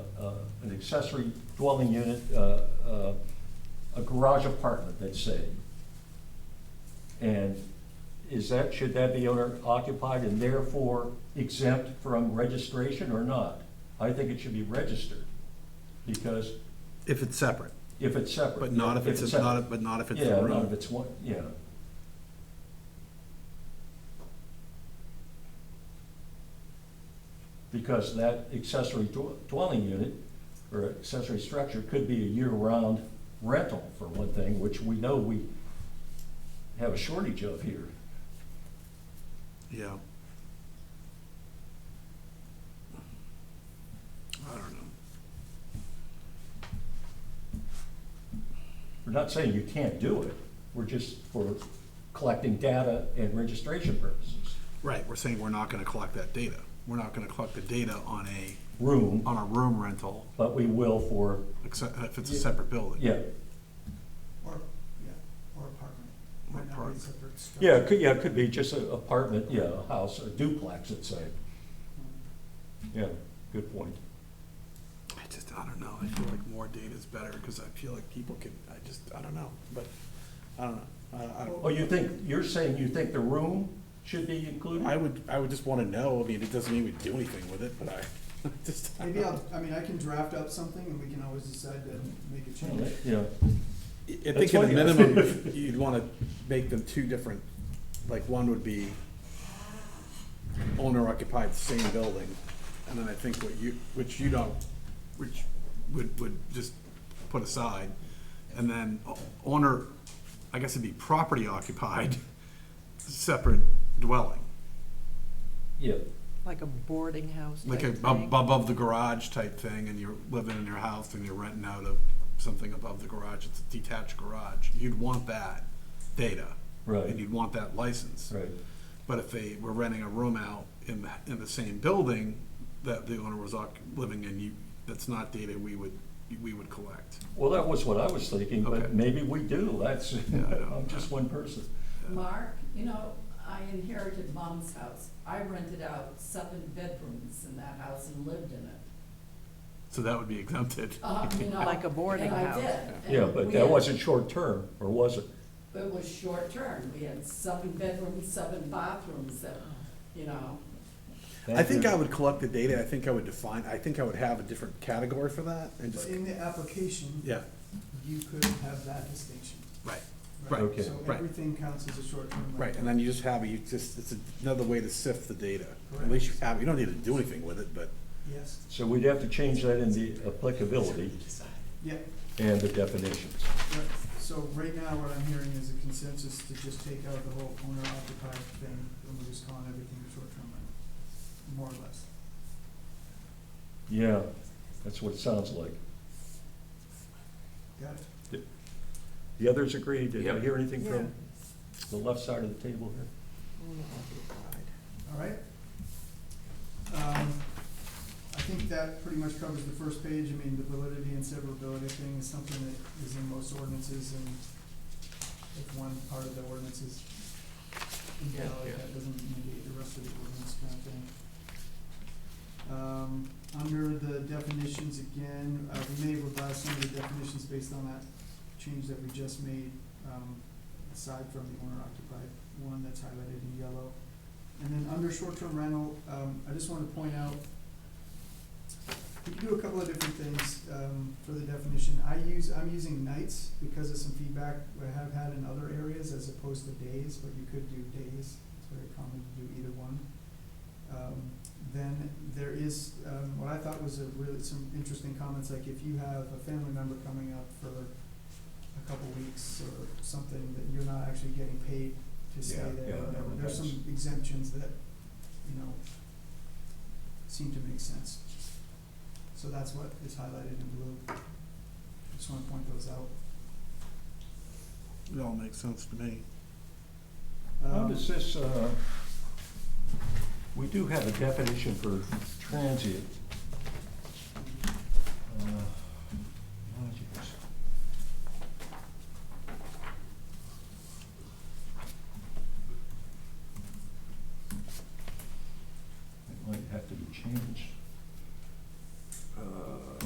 uh, accessory dwelling unit, uh, uh, a garage apartment, let's say. And is that, should that be owner occupied and therefore exempt from registration or not? I think it should be registered, because If it's separate, if it's separate. but not if it's, separate. not, but not if it's Yeah, a not if room. it's one, yeah. Because that accessory dw- dwelling unit or accessory structure could be a year-round rental for one thing, which we know we have a shortage of here. Yeah. I don't know. We're not saying you can't do it, we're just for collecting data and registration purposes. Right, we're saying we're not gonna collect that data. We're not gonna collect the data on a, Room, on a room rental, but we will for, except if it's a Yeah. separate building. yeah, Or, yeah, or apartment. Or Might not be apartment. separate structure. yeah, it could, yeah, it could be just an apartment, yeah, a house, a duplex, let's say. Yeah, good point. I just, I don't know, I feel like more data is better, because I feel like people can, I just, I don't know, but, I don't know. I, I don't. Oh, you think, you're saying you think the room should be I included? would, I would just wanna know, I mean, it doesn't mean we do anything with it, but I, just. I Maybe don't know. I'll, I mean, I can draft up something and we can always decide to make a change. Yeah, I think at a minimum, you'd wanna make them two different, like, one would be owner occupied, same building, and then I think what you, which you don't, which would, would just put aside, and then o- owner, I guess it'd be property occupied, separate dwelling, yeah, Like a boarding house like a, type ab- thing. Oh, above the garage type thing, and you're living in your house and you're renting out of something above the garage, it's a detached garage, you'd want that data. and right, you'd want that license. right, But if they were renting a room out in, the- in the same building that the owner was occ- living in, you, that's not data we would, we would collect. well, that was what I was thinking, but Okay. maybe we do, that's, I know. I'm just one person. Mark, you know, I inherited mom's house. I rented out seven bedrooms in that house and lived in it. So that would be exempted. Uh, you know, Like a boarding and I house. did, and Yeah, but we that had- wasn't short-term, or was it? It was short term. We had seven bedrooms, seven bathrooms that, you know. I think I would collect the data, I think I would define, I think I would have a different category for that and But just, in the application, yeah, you could have that distinction. right, Right, Okay. So right. everything counts as a short-term rental. right, and then you just have, it. you just, it's another way to sift the data. At Correct. least you have, you don't need to do anything with it, but Yes, So we'd have to change that in the applicability yeah, and the definitions. right. So right now, what I'm hearing is a consensus to just take out the whole owner occupied thing, and we're just calling everything a short-term rental, more or less. Yeah, that's what it sounds like. Got it? The others agree, did I Yep. hear anything from the left side of the table here? All right. Um, I think that pretty much covers the first page. I mean, the validity and severability thing is something that is in most ordinances and if one part of the ordinance is invalid, Yeah. that doesn't negate the rest of the ordinance kind of thing. Um, under the definitions again, uh, we may revise some of the definitions based on that change that we just made, um, aside from the owner occupied one that's highlighted in yellow. And then under short-term rental, um, I just wanna point out, we can do a couple of different things, um, for the definition. I use, I'm using nights because of some feedback I have had in other areas as opposed to days, but you could do days. It's very common to do either one. Um, then there is, um, what I thought was a really, some interesting comments, like if you have a family member coming up for a couple weeks or something, that you're not actually getting paid to stay Yeah, there, yeah, or whatever. that There's makes- some exemptions that, you know, seem to make sense. So that's what is highlighted in blue. Just wanna point those out. it all makes sense to me. How Um, does this, uh, we do have a definition for transient. Uh, lodgings. It might have to be changed. Uh,